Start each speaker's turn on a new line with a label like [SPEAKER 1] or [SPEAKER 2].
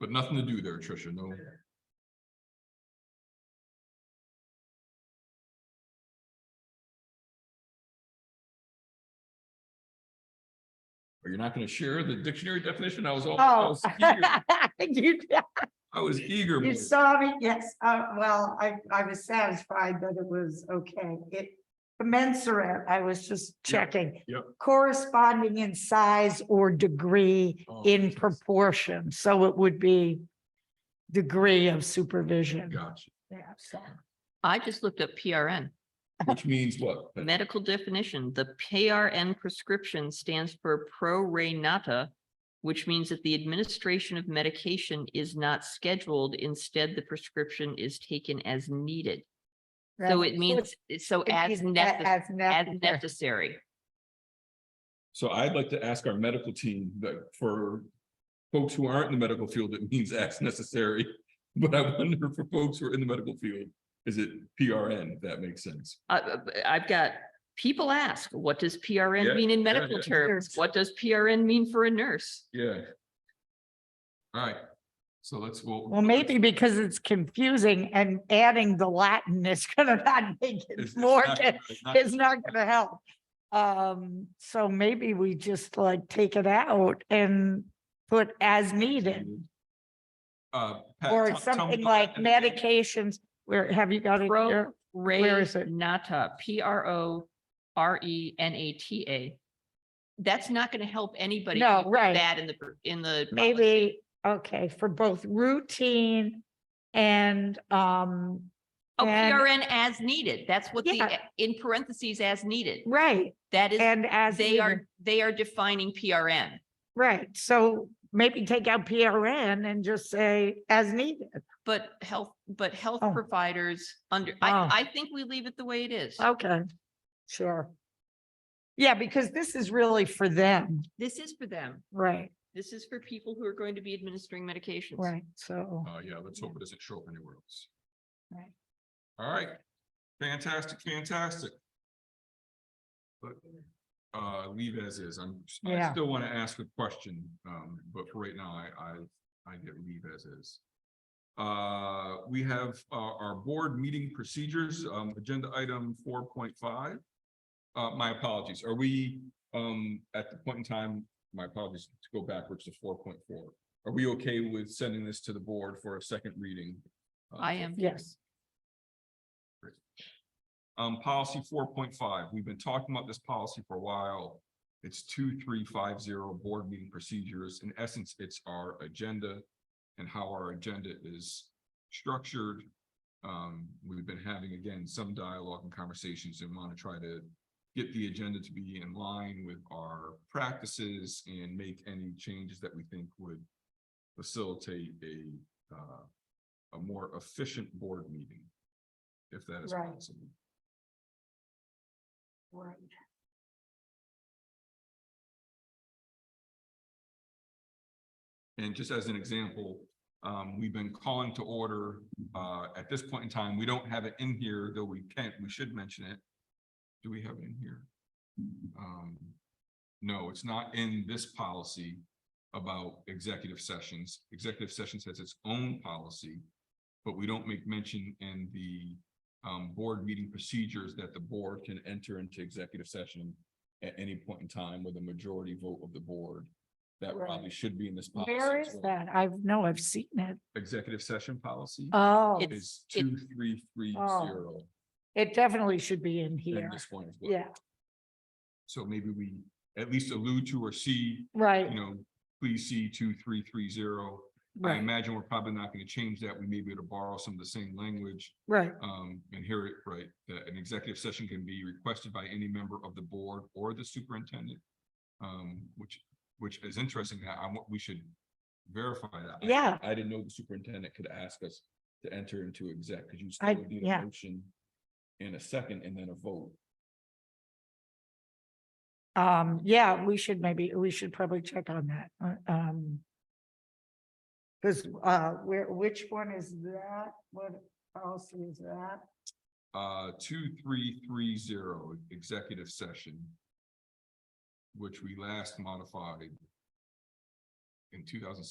[SPEAKER 1] But nothing to do there, Tricia, no. Are you not gonna share the dictionary definition? I was all, I
[SPEAKER 2] Oh.
[SPEAKER 1] was eager,
[SPEAKER 2] You
[SPEAKER 1] I was eager.
[SPEAKER 2] you saw me, yes, uh, well, I, I was satisfied that it was okay. It commensurate, I was just checking.
[SPEAKER 1] yep.
[SPEAKER 2] Corresponding in size or degree
[SPEAKER 1] Oh.
[SPEAKER 2] in proportion, so it would be degree of supervision.
[SPEAKER 1] Gotcha,
[SPEAKER 2] Yeah, so.
[SPEAKER 3] I just looked up PRN,
[SPEAKER 1] which means what?
[SPEAKER 3] medical definition. The PRN prescription stands for pro renata, which means that the administration of medication is not scheduled. Instead, the prescription is taken as needed. So
[SPEAKER 2] Right.
[SPEAKER 3] it means, so
[SPEAKER 2] it
[SPEAKER 3] as
[SPEAKER 2] means a-
[SPEAKER 3] necessary,
[SPEAKER 2] As
[SPEAKER 3] as
[SPEAKER 2] necessary.
[SPEAKER 3] necessary.
[SPEAKER 1] So I'd like to ask our medical team that for folks who aren't in the medical field, it means as necessary. But I wonder for folks who are in the medical field, is it PRN, if that makes sense?
[SPEAKER 3] I, uh, I've got, people ask, what does
[SPEAKER 1] Yeah,
[SPEAKER 3] PRN mean in medical
[SPEAKER 1] yeah.
[SPEAKER 3] terms? What does PRN mean for a nurse?
[SPEAKER 1] Yeah. All right, so let's, well.
[SPEAKER 2] Well, maybe because it's confusing and adding the Latin is gonna not make
[SPEAKER 1] It's-
[SPEAKER 2] it
[SPEAKER 1] it's
[SPEAKER 2] more,
[SPEAKER 1] not-
[SPEAKER 2] con-
[SPEAKER 1] it's not-
[SPEAKER 2] it's not gonna help. Um, so maybe we just like take it out and put as needed.
[SPEAKER 1] Uh, Pat,
[SPEAKER 2] Or
[SPEAKER 1] tell- tell me
[SPEAKER 2] something
[SPEAKER 1] about
[SPEAKER 2] like
[SPEAKER 1] that again.
[SPEAKER 2] medications, where, have you got it
[SPEAKER 3] Pro-
[SPEAKER 2] here? Where
[SPEAKER 3] Ray
[SPEAKER 2] is it?
[SPEAKER 3] Nata, P R O R E N A T A. That's not going to help anybody.
[SPEAKER 2] No,
[SPEAKER 3] who put
[SPEAKER 2] right.
[SPEAKER 3] That in the, in the. policy.
[SPEAKER 2] Maybe, okay, for both routine and, um,
[SPEAKER 3] Oh,
[SPEAKER 2] and-
[SPEAKER 3] PRN as needed. That's what the,
[SPEAKER 2] Yeah.
[SPEAKER 3] in parentheses as needed.
[SPEAKER 2] right,
[SPEAKER 3] That is,
[SPEAKER 2] and as.
[SPEAKER 3] they
[SPEAKER 2] needed.
[SPEAKER 3] are, they are defining PRN.
[SPEAKER 2] Right, so maybe take out PRN and just say as needed.
[SPEAKER 3] But health, but health
[SPEAKER 2] Oh.
[SPEAKER 3] providers under,
[SPEAKER 2] Oh.
[SPEAKER 3] I, I think we leave it the way it is.
[SPEAKER 2] Okay, sure. Yeah, because this is really for them,
[SPEAKER 3] This is for them.
[SPEAKER 2] right,
[SPEAKER 3] This is for people who are going to be administering medications.
[SPEAKER 2] right, so.
[SPEAKER 1] Uh, yeah, let's hope it doesn't show up anywhere else.
[SPEAKER 2] Right.
[SPEAKER 1] All right, fantastic, fantastic. But, uh, leave as is, I'm, I
[SPEAKER 2] Yeah.
[SPEAKER 1] still want to ask a question, um, but for right now, I, I, I get leave as is. Uh, we have, uh, our board meeting procedures, um, agenda item four point five. Uh, my apologies, are we, um, at the point in time, my apologies to go backwards to four point four. Are we okay with sending this to the board for a second reading? Uh,
[SPEAKER 3] I am.
[SPEAKER 2] Yes,
[SPEAKER 1] Um, policy four point five, we've been talking about this policy for a while. It's two, three, five, zero board meeting procedures. In essence, it's our agenda and how our agenda is structured. Um, we've been having, again, some dialogue and conversations and want to try to get the agenda to be in line with our practices and make any changes that we think would facilitate a, uh, a more efficient board meeting, if that is
[SPEAKER 2] Right.
[SPEAKER 1] possible.
[SPEAKER 2] right.
[SPEAKER 1] And just as an example, um, we've been calling to order, uh, at this point in time, we don't have it in here, though we can't, we should mention it. Do we have it in here? Um, no, it's not in this policy about executive sessions. Executive sessions has its own policy. But we don't make mention in the, um, board meeting procedures that the board can enter into executive session at any point in time with a majority vote of the board. That
[SPEAKER 2] Right.
[SPEAKER 1] probably should be in this policy.
[SPEAKER 2] Where
[SPEAKER 1] as
[SPEAKER 2] is
[SPEAKER 1] well.
[SPEAKER 2] that? I know, I've seen it.
[SPEAKER 1] Executive session policy
[SPEAKER 2] Oh,
[SPEAKER 3] It's-
[SPEAKER 1] is two, three, three,
[SPEAKER 2] Oh,
[SPEAKER 1] zero.
[SPEAKER 2] it definitely should be in
[SPEAKER 1] And
[SPEAKER 2] here.
[SPEAKER 1] this one as well.
[SPEAKER 2] Yeah,
[SPEAKER 1] So maybe we at least allude to or see, you
[SPEAKER 2] right,
[SPEAKER 1] know, please see two, three, three, zero. I
[SPEAKER 2] right,
[SPEAKER 1] imagine we're probably not going to change that. We may be able to borrow some of the same language.
[SPEAKER 2] right,
[SPEAKER 1] Um, and here it, right, that an executive session can be requested by any member of the board or the superintendent. Um, which, which is interesting. I, I, we should verify that. I-
[SPEAKER 2] Yeah.
[SPEAKER 1] I didn't know the superintendent could ask us to enter into exec, because you
[SPEAKER 2] I-
[SPEAKER 1] still would need a
[SPEAKER 2] yeah.
[SPEAKER 1] motion in a second and then a vote.
[SPEAKER 2] um, yeah, we should maybe, we should probably check on that, uh, um. Cause, uh, where, which one is that? What else is that?
[SPEAKER 1] Uh, two, three, three, zero, executive session. Which we last modified. In two thousand